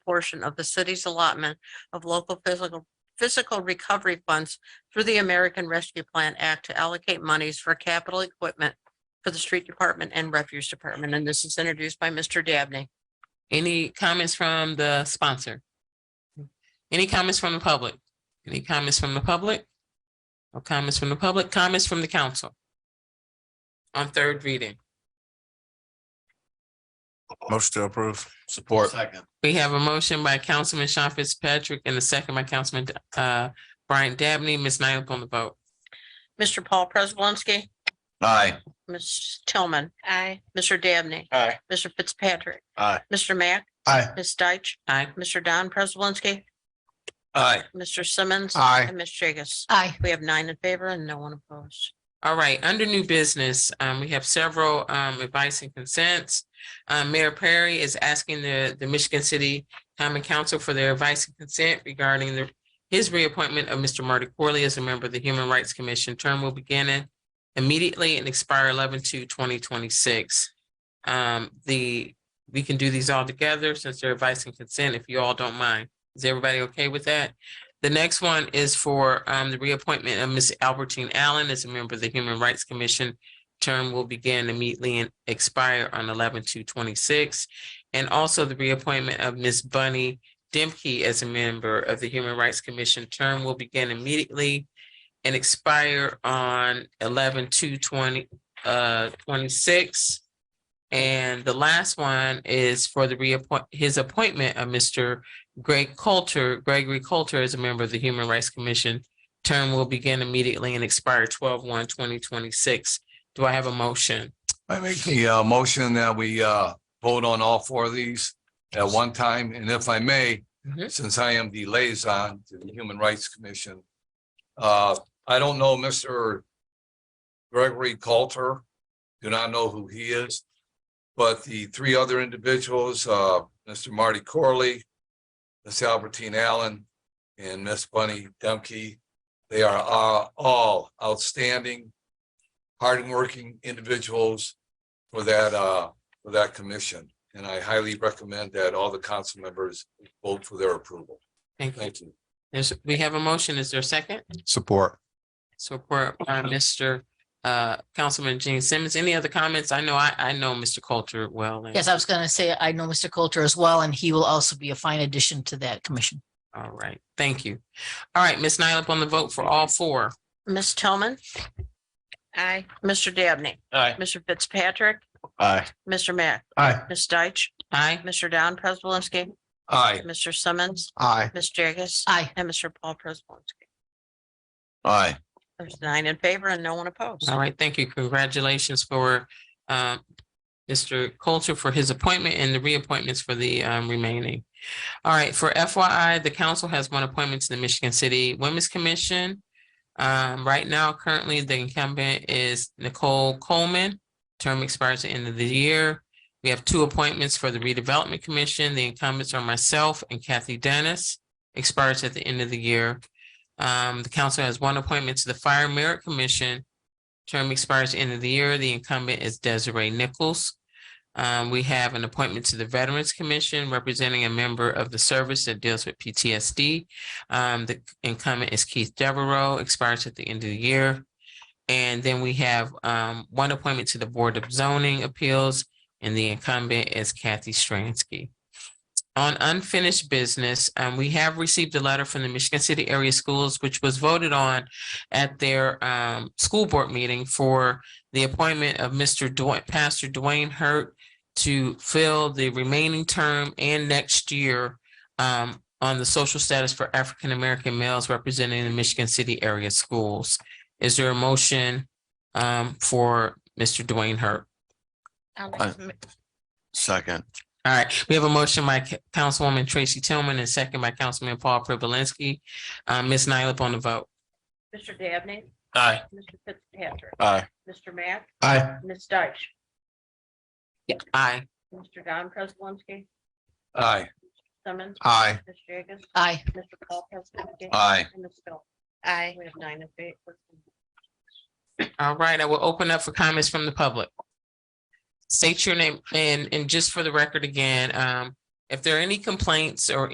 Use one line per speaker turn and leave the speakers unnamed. portion of the city's allotment of local physical, physical recovery funds through the American Rescue Plan Act to allocate monies for capital equipment for the street department and refuse department, and this is introduced by Mr. Dabney.
Any comments from the sponsor? Any comments from the public? Any comments from the public? No comments from the public, comments from the council? On third reading,
Motion to approve.
Support.
we have a motion by Councilman Sean Fitzpatrick and a second by Councilman uh Brian Dabney. Ms. Nyla on the vote.
Mr. Paul Prespolinski,
Aye.
Ms. Tillman. Aye. Mr. Dabney.
Aye.
Mr. Fitzpatrick.
Aye.
Mr. Mack.
Aye.
Ms. Deitch.
Aye.
Mr. Don Prespolinski.
Aye.
Mr. Simmons.
Aye.
And Ms. Jagus.
Aye.
We have nine in favor and no one opposed.
All right, under new business, um, we have several, um, advice and consents. Uh, Mayor Perry is asking the, the Michigan City Common Council for their advice and consent regarding the, his reappointment of Mr. Marty Corley as a member of the Human Rights Commission. Term will begin in- immediately and expire 11 to 2026. Um, the, we can do these all together since they're advice and consent, if you all don't mind. Is everybody okay with that? The next one is for um the reappointment of Ms. Albertine Allen as a member of the Human Rights Commission. Term will begin immediately and expire on 11 to 26, And also the reappointment of Ms. Bunny Demke as a member of the Human Rights Commission. Term will begin immediately and expire on 11 to 20 uh twenty-six. And the last one is for the reappoint, his appointment of Mr. Greg Coulter, Gregory Coulter is a member of the Human Rights Commission. Term will begin immediately and expire 12 1 2026. Do I have a motion?
I make the uh motion that we uh vote on all four of these at one time, and if I may,
Mhm.
since I am the liaison to the Human Rights Commission. Uh, I don't know Mr. Gregory Coulter, do not know who he is. But the three other individuals, uh, Mr. Marty Corley, Miss Albertine Allen, and Miss Bunny Dumke. They are uh, all outstanding hardworking individuals for that, uh, for that commission. And I highly recommend that all the council members vote for their approval.
Thank you.
Thank you.
There's, we have a motion. Is there a second?
Support.
Support by Mr. Uh, Councilman Gene Simmons. Any other comments? I know, I, I know Mr. Coulter well. and-
Yes, I was going to say, I know Mr. Coulter as well, and he will also be a fine addition to that commission.
All right, thank you. All right, Ms. Nyla on the vote for all four.
Ms. Tillman. Aye. Mr. Dabney.
Aye.
Mr. Fitzpatrick.
Aye.
Mr. Mack.
Aye.
Ms. Deitch.
Aye.
Mr. Don Prespolinski.
Aye.
Mr. Simmons.
Aye.
Ms. Jagus.
Aye.
And Mr. Paul Prespolinski.
Aye.
There's nine in favor and no one opposed.
All right, thank you. Congratulations for um Mr. Coulter for his appointment and the reappointments for the um remaining. All right, for FYI, the council has one appointment to the Michigan City Women's Commission. Um, right now, currently, the incumbent is Nicole Coleman. Term expires at the end of the year. We have two appointments for the redevelopment commission. The incumbents are myself and Kathy Dennis. Expires at the end of the year. Um, the council has one appointment to the Fire Merit Commission. Term expires end of the year. The incumbent is Desiree Nichols. Um, we have an appointment to the Veterans Commission representing a member of the service that deals with PTSD. Um, the incumbent is Keith Devereaux, expires at the end of the year. And then we have, um, one appointment to the Board of Zoning Appeals and the incumbent is Kathy Stransky. On unfinished business, um, we have received a letter from the Michigan City Area Schools, which was voted on at their um school board meeting for the appointment of Mr. Dwayne, Pastor Dwayne Hurt to fill the remaining term and next year um on the social status for African American males representing the Michigan City area schools. Is there a motion um for Mr. Dwayne Hurt?
Second.
All right, we have a motion by Ca- Councilwoman Tracy Tillman and second by Councilman Paul Privilinski. Uh, Ms. Nyla on the vote.
Mr. Dabney.
Aye.
Mr. Fitzpatrick.
Aye.
Mr. Mack.
Aye.
Ms. Deitch.
Aye.
Mr. Don Prespolinski.
Aye.
Simmons.
Aye.
Ms. Jagus.
Aye.
Mr. Paul Prespolinski.
Aye.
And Ms. Phil. Aye. We have nine in favor.
All right, I will open up for comments from the public. State your name and, and just for the record again, um, If there are any complaints or